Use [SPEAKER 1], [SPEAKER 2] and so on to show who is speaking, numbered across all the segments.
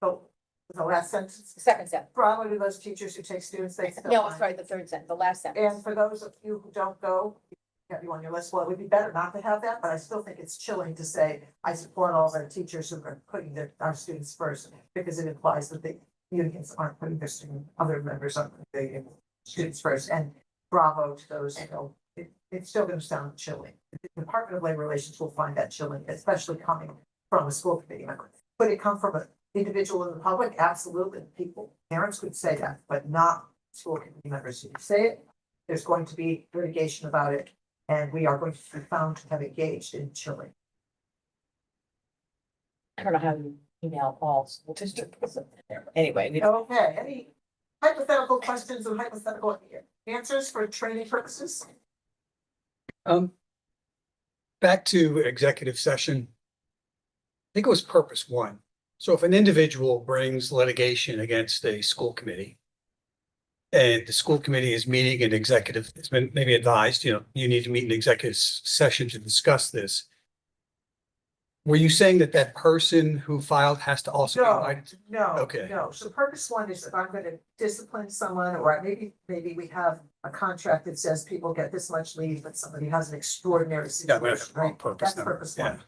[SPEAKER 1] the, the last sentence,
[SPEAKER 2] second sentence.
[SPEAKER 1] probably to those teachers who take students, they still.
[SPEAKER 2] No, I'm sorry, the third sentence, the last
[SPEAKER 1] And
[SPEAKER 2] sentence.
[SPEAKER 1] for those of you who don't go, you have you on your list, well, it would be better not to have that, but I still think it's chilling to say, I support all of our teachers who are putting their, our students first, because it implies that the unions aren't putting their student, other members aren't putting their students first, and bravo to those who go. It, it's still gonna sound chilling. The Department of Labor Relations will find that chilling, especially coming from a school committee member. Could it come from an individual in the public? Absolutely, people, parents could say that, but not school committee members. If you say it, there's going to be litigation about it, and we are going to be found to have engaged in chilling.
[SPEAKER 2] I don't know how you email all school districts. Anyway, we don't.
[SPEAKER 1] Okay, any hypothetical questions or hypothetical answers for training purposes?
[SPEAKER 3] Um. Back to executive session. I think it was purpose one. So if an individual brings litigation against a school committee. And the school committee is meeting an executive, it's been maybe advised, you know, you need to meet an executive s- session to discuss this. Were you saying that that person who filed has to also? be
[SPEAKER 1] No.
[SPEAKER 3] invited?
[SPEAKER 1] No.
[SPEAKER 3] Okay.
[SPEAKER 1] No, so purpose one is if I'm gonna discipline someone, or maybe, maybe we have a contract that says people get this much leave, but somebody has an extraordinary
[SPEAKER 3] Yeah,
[SPEAKER 1] situation,
[SPEAKER 3] but that's the wrong
[SPEAKER 1] right?
[SPEAKER 3] purpose.
[SPEAKER 1] That's
[SPEAKER 3] no.
[SPEAKER 1] purpose
[SPEAKER 3] Yeah,
[SPEAKER 1] one.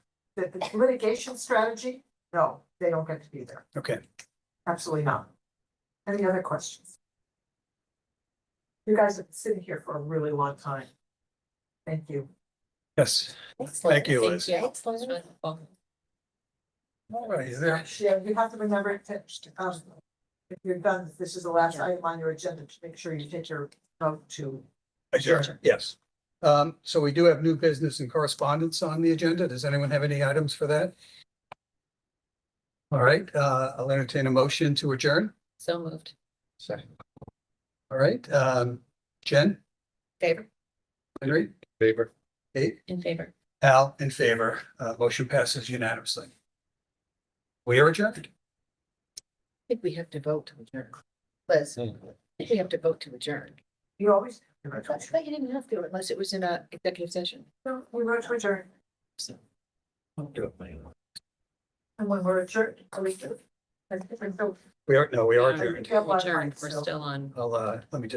[SPEAKER 1] The the litigation strategy, no, they don't get to be there,
[SPEAKER 3] okay.
[SPEAKER 1] absolutely not. Any other questions? You guys have been sitting here for a really long time. Thank you.
[SPEAKER 3] Yes. Thank you, Liz. All right, is there?
[SPEAKER 1] Yeah, you have to remember to, um, if you're done, this is the last item on your agenda, to make sure you take your vote to
[SPEAKER 3] Adjourn, yes. Um, so we do have new business and correspondence on the agenda. Does anyone have any items for that? All right, uh, I'll entertain a motion to adjourn.
[SPEAKER 2] So moved.
[SPEAKER 3] Second. All right, um, Jen,
[SPEAKER 2] Favor?
[SPEAKER 3] Henry,
[SPEAKER 4] Favor.
[SPEAKER 3] Kate,
[SPEAKER 2] In favor.
[SPEAKER 3] Al, in favor. Uh, motion passes unanimously. We are adjourned.
[SPEAKER 2] I think we have to vote to adjourn. Liz, I
[SPEAKER 4] Hmm.
[SPEAKER 2] think we have to vote to adjourn.
[SPEAKER 1] You always.
[SPEAKER 2] I thought I thought you didn't have to unless it was in a executive session.
[SPEAKER 1] No, we wrote to adjourn,
[SPEAKER 4] Good.
[SPEAKER 1] and when we're adjourned, are we? I think we're still-
[SPEAKER 3] We are, no, we are
[SPEAKER 1] I
[SPEAKER 3] adjourned.
[SPEAKER 1] think we have a lot of time, so-
[SPEAKER 3] I'll, uh, let me just.